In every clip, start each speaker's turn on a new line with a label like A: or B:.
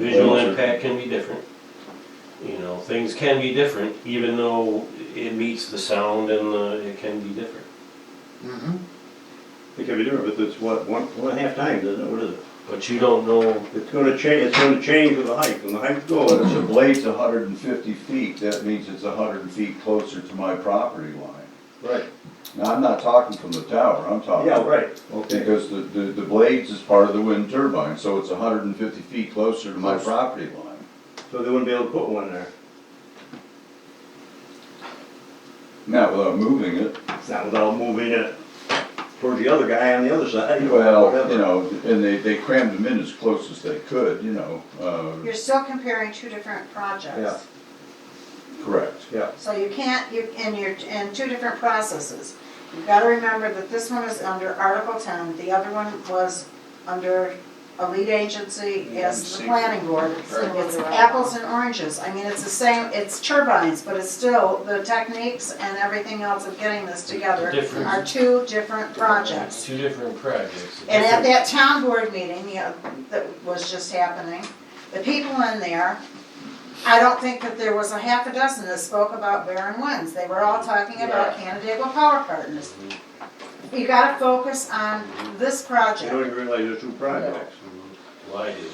A: impact can be different. You know, things can be different, even though it meets the sound and the, it can be different.
B: Mm-hmm.
C: It can be different, but it's what, one, one and a half times, isn't it? What is it?
A: But you don't know,
C: It's gonna change, it's gonna change with the height, when the height goes,
D: Well, if the blade's hundred and fifty feet, that means it's hundred feet closer to my property line.
C: right,
D: Now, I'm not talking from the tower, I'm talking.
C: yeah, right, okay.
D: Because the, the, the blades is part of the wind turbine, so it's hundred and fifty feet closer to my
C: Close.
D: property line.
C: So they wouldn't be able to put one there.
D: Not without moving it.
C: It's not without moving it towards the other guy on the other side.
D: Well,
C: whatever.
D: you know, and they, they crammed them in as close as they could, you know, uh,
E: You're still comparing two different projects.
D: correct.
C: Yeah,
E: So you can't, you, and you're, and two different processes. You've gotta remember that this one is under Article ten, the other one was under a lead agency as the planning board. It's apples and oranges, I mean, it's the same, it's turbines, but it's still, the techniques and everything else of getting this together
A: Different.
E: are two different projects.
A: it's two different projects.
E: And at that town board meeting, you know, that was just happening, the people in there, I don't think that there was a half a dozen that spoke about Barren Winds. They were all talking about Canandaigua Power Partners. You gotta focus on this
C: you don't
E: project.
C: even realize there's two projects.
A: Well, I do.
C: And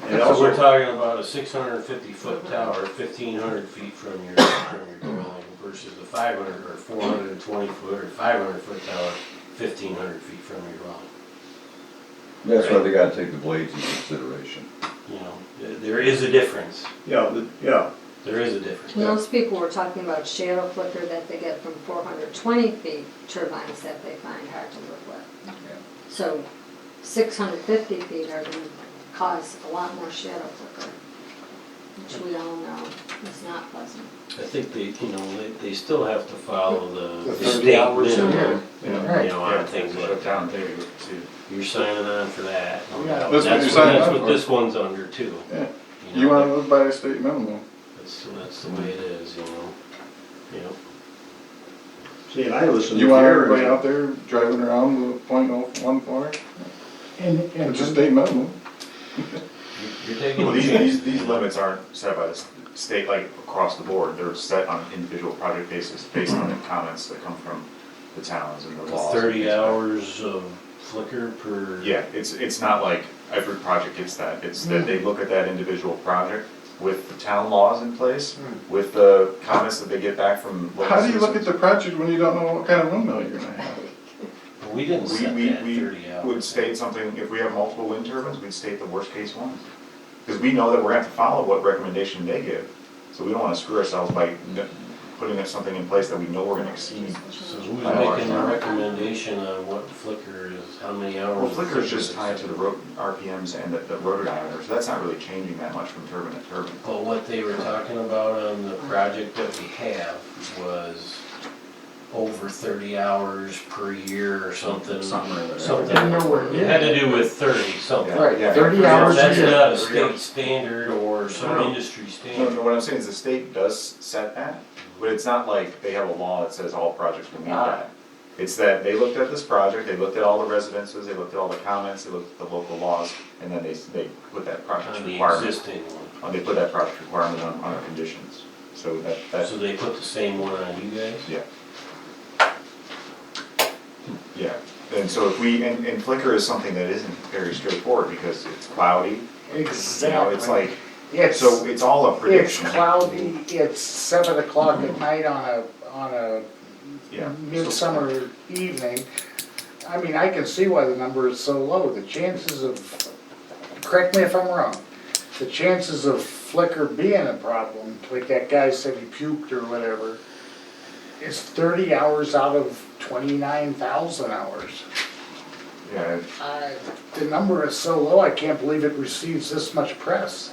A: So we're
C: also,
A: talking about a six hundred and fifty foot tower, fifteen hundred feet from your, from your dwelling versus a five hundred or four hundred and twenty foot or five hundred foot tower, fifteen hundred feet from your dwelling.
D: That's why they gotta take the blades into consideration.
A: You know, th- there is a difference,
C: yeah, the- yeah,
A: there is a difference.
F: Well, Those people were talking about shadow flicker that they get from four hundred twenty feet turbines that they find hard to live with. So six hundred fifty feet are gonna cause a lot more shadow flicker, which we all know is not pleasant.
A: I think they, you know, they, they still have to follow the
B: The
A: the
B: 30
A: state
B: hours in
A: minimum, you
B: there.
A: know,
B: Right.
A: you know, on things like that.
G: down there Oh, too.
A: You're signing on for that.
B: Yeah.
D: That's what
A: That's
D: you're
A: what,
D: signing
A: that's
D: on
A: what
D: for.
A: this one's under too.
D: Yeah.
A: know,
B: You wanna live by the state minimum.
A: That's, that's the way it is, you know, you know.
C: see, and I listen to
B: You want
C: Gary.
B: everybody out there driving around with a point oh one four,
H: And, and
B: it's a state minimum.
A: You're taking
G: Well,
A: a
G: these,
A: chance.
G: these, these limits aren't set by the s- state, like, across the board, they're set on an individual project basis, based on the comments that come from the towns and the laws. and
A: Thirty
G: things like that.
A: hours of flicker per.
G: Yeah, it's, it's not like every project gets that, it's that they look at that individual project with the town laws in place, with the comments that they get back from local
B: Hmm. How do you look at
G: citizens.
B: the project when you don't know what kind of windmill you're gonna have?
A: But We didn't
G: We,
A: set
G: we,
A: that thirty
G: we
A: hours.
G: would state something, if we have multiple wind turbines, we'd state the worst case ones. Because we know that we're gonna have to follow what recommendation they give, so we don't wanna screw ourselves by n- putting something in place that we know we're gonna exceed.
A: So who's
G: Five hours
A: making the
G: an hour.
A: recommendation on what flicker is, how many hours?
G: Well,
A: of
G: flicker is just
A: is?
G: tied to the ro- RPMs and the, the rotor diameter, so that's not really changing that much from turbine to turbine.
A: But what they were talking about on the project that we have was over thirty hours per year or something.
G: Something or other.
A: Something.
H: Nowhere
A: It had to do with thirty something.
H: Oh, Right,
G: Yeah.
H: thirty
A: Now,
H: hours a
A: That's
H: year.
A: not a state standard or some industry
G: No, no,
A: standard.
G: what I'm saying is the state does set that, but it's not like they have a law that says all projects will meet that. It's that they looked at this project, they looked at all the residences, they looked at all the comments, they looked at the local laws, and then they, s- they put that project
A: On the
G: requirement.
A: existing one.
G: uh, They put that project requirement on, on our conditions, so that,
A: So
G: that,
A: they put the same one on you guys?
G: yeah. Yeah, and so if we, and, and Flickr is something that isn't very straightforward, because it's cloudy, you know, it's
H: Exactly.
G: like,
H: It's,
G: so it's all a
H: it's
G: prediction.
H: cloudy, it's seven o'clock at night on a, on a
G: Yeah. so-
H: midsummer evening. I mean, I can see why the number is so low. The chances of, correct me if I'm wrong, the chances of flicker being a problem, like that guy said he puked or whatever, is thirty hours out of twenty-nine thousand hours.
G: Yeah,
H: I- The number is so low, I can't believe it receives this much press.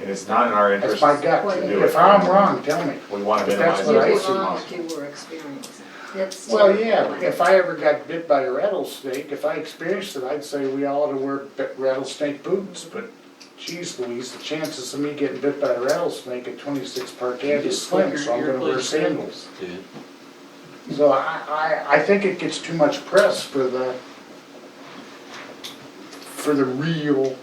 G: and it's not in our interest.
H: That's my gut.
F: to do
H: If
G: it.
H: I'm wrong, tell me.
G: We want to
H: But
G: minimize
H: that's
G: it as
H: what I
G: much
H: see.
G: as
F: You'd be wrong if
G: possible.
F: you were experiencing. It's
H: Well,
F: still
H: yeah,
F: fine.
H: if I ever got bit by a rattlesnake, if I experienced it, I'd say we all ought to wear b- rattlesnake boots, but geez Louise, the chances of me getting bit by a rattlesnake at twenty-six Park Ave is slim, so I'm gonna wear sandals.
A: Dude,
H: So I, I, I think it gets too much press for the, for the real